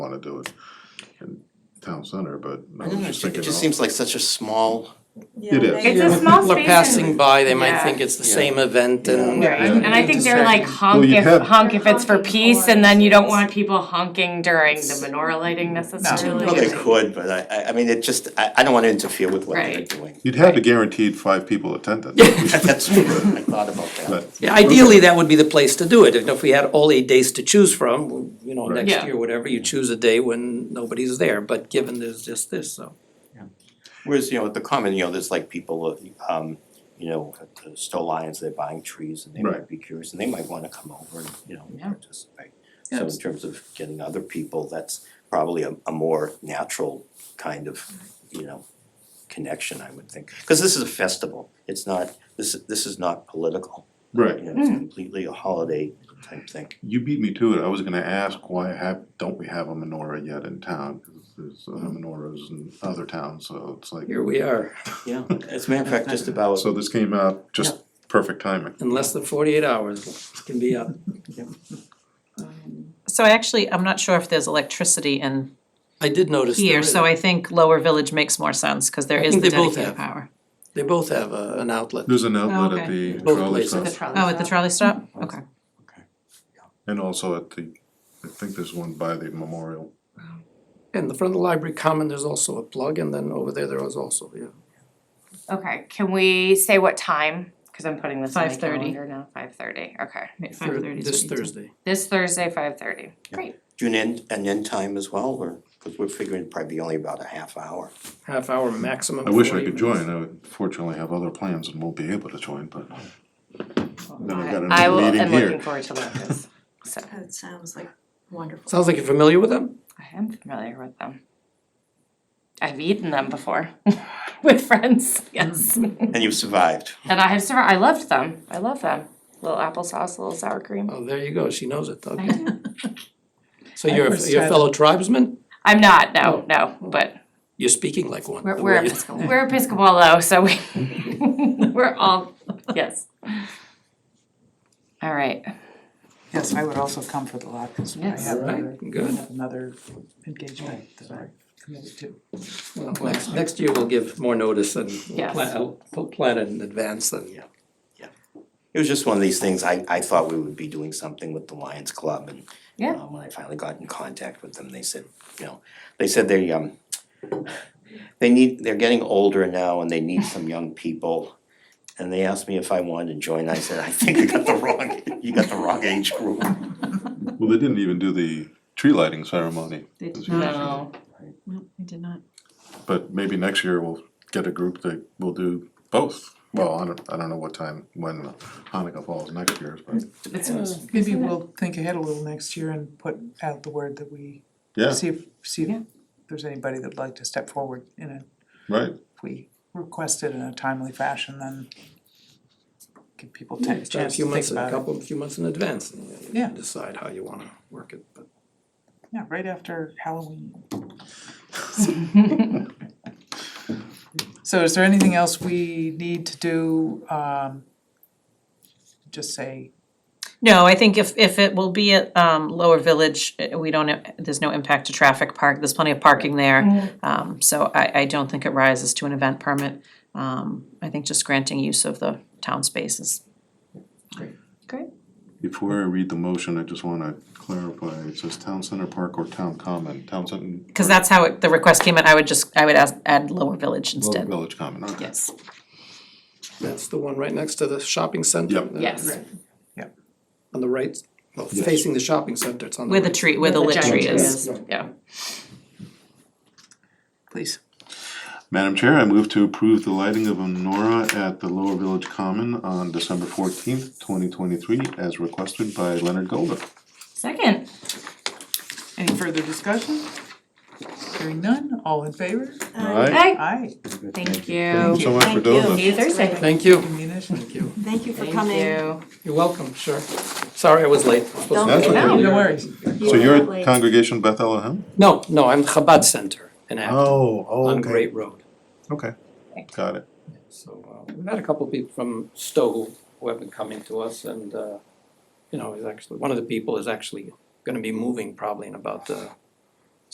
wanna do it in town center, but I I was don't know, just it thinking, just oh, seems like such a small, it is. It's a small people are space passing and, by, they might yeah. think it's the Yeah. same event and. right, and I think they're like honk Well, you if, have- honk if it's for Honking peace, for- and then you don't want people honking during the menorah lighting necessarily. Well, they could, but I, I, I mean, it just, I, I don't wanna interfere with what they're Right. doing. you'd have to guaranteed five people attendance. That's true, I thought about that. But Yeah, ideally, that would be the place to do it, and if we had all eight days to choose from, you know, Right. next Yeah. year, whatever, you choose a day when nobody's there, but given there's just this, so. Whereas, you know, at the common, you know, there's like people, um, you know, at the Stowe Lions, they're buying trees and they might Right. be curious and they might wanna come over and, you know, Yeah. participate. So in terms of getting other people, that's probably a, a more natural kind of, you know, connection, I would think. Cause this is a festival, it's not, this, this is not political. Right, You know, it's completely a holiday type thing. you beat me to it, I was gonna ask why have, don't we have a menorah yet in town? 'Cause There's uh, menorahs in other towns, so it's like, Here we are, Yeah, as a matter of fact, just about, so this came out just perfect timing. in less than forty-eight hours, can be up. So I actually, I'm not sure if there's electricity in I did notice there here, is- so I think Lower Village makes more sense, cause there is think the they both dedicated have. power. They both have a, an outlet. There's an outlet at okay. the Both trolley places. stop, Oh, at the trolley stop? Mm-hmm. Okay. and also at the, I think there's one by the memorial. In the front of the library common, there's also a plug, and then over there, there was also, yeah. Okay, can we say what time? Cause I'm putting this on my 5:30. calendar now, five thirty, okay. Five thirty is This what you do. Thursday. This Thursday, five thirty, great. do an end, an end time as well, or, cause we're figuring probably only about a half hour. half hour maximum. I wish I 40 could minutes. join, I would fortunately have other plans and won't be able to join, but then I've got I another will, meeting am looking here. forward to Lucas, so, That sounds like wonderful. Sounds like you're familiar with them? I am familiar with them. I've eaten them before with friends, yes. Mm. And you've survived. And I have survived, I loved them, I love them. Little applesauce, little sour cream. Oh, there you go, she knows it, I okay. do. So you're, a- first you're a tried fellow tribesman? I'm not, no, no, but You're speaking like one. we're the we're way you- Episcopal, we're Episcopal though, so we we're all, yes. All right, Yes, I would also come for the lot, cause I Yes. have another, Alright, good. I have another engagement that I committed to. Well, Next, next year we'll give more notice and we'll Yes. plan, uh, we'll plan it in advance and, yeah. It was just one of these things, I, I thought we would be doing something with the Lions Club and Yeah. uh, when I finally got in contact with them, they said, you know, they said they, um, they need, they're getting older now and they need some young people. And they asked me if I wanted to join, I said, I think you got the wrong, you got the wrong age group. Well, they didn't even do the tree lighting ceremony, They did No. not, no, no, they did not. but maybe next year we'll get a group that will do both. Well, I don't, I don't know what time, when Hanukkah falls next year, but it's, Maybe we'll think ahead a little next year and put out the word that we, yeah, see if, see Yeah. if there's anybody that'd like to step forward in a, right. if we request it in a timely fashion, then give people a chance to Start a think about it. few months, a couple, a few months in advance and you Yeah. decide how you wanna work it, but. Yeah, right after Halloween. So is there anything else we need to do, um, just say No, I think if if it will be at um Lower Village, eh, we don't, there's no impact to traffic park, there's plenty of parking there. Um so I I don't think it rises to an event permit. Um I think just granting use of the town spaces. great. Before I read the motion, I just wanna clarify, it says town center park or town common, town center, Cause that's how it, the request came in, I would just, I would ask, add Lower Village well, instead. village common, okay. Yes. Uh, That's the one right next to the shopping center. Yep. uh, Yes, On the right, well, facing the shopping center, it's on the Where right. the tree, where the lit tree giant is. yeah. Please. Madam Chair, I move to approve the lighting of a menorah at the Lower Village Common on December fourteenth, twenty twenty-three, as requested by Leonard Golden. Second, Any further discussion? Hearing none, all in favor? All right, Hey, Aye. thank thank you. you so much for Thank doing you. this. See you Thursday. Thank you, Munition. thank you. Thank you for Thank coming. you. You're welcome, sure. Sorry I was late. Don't That's be okay. late. Oh, No worries. You So were you're not at late. congregation Beth Elohim? No, no, I'm Chabad Center in Acton Oh, oh, on Great Road. Okay, got it. So uh, we've had a couple of people from Stowe who- who have been coming to us and, uh, you know, is actually, one of the people is actually gonna be moving probably in about uh,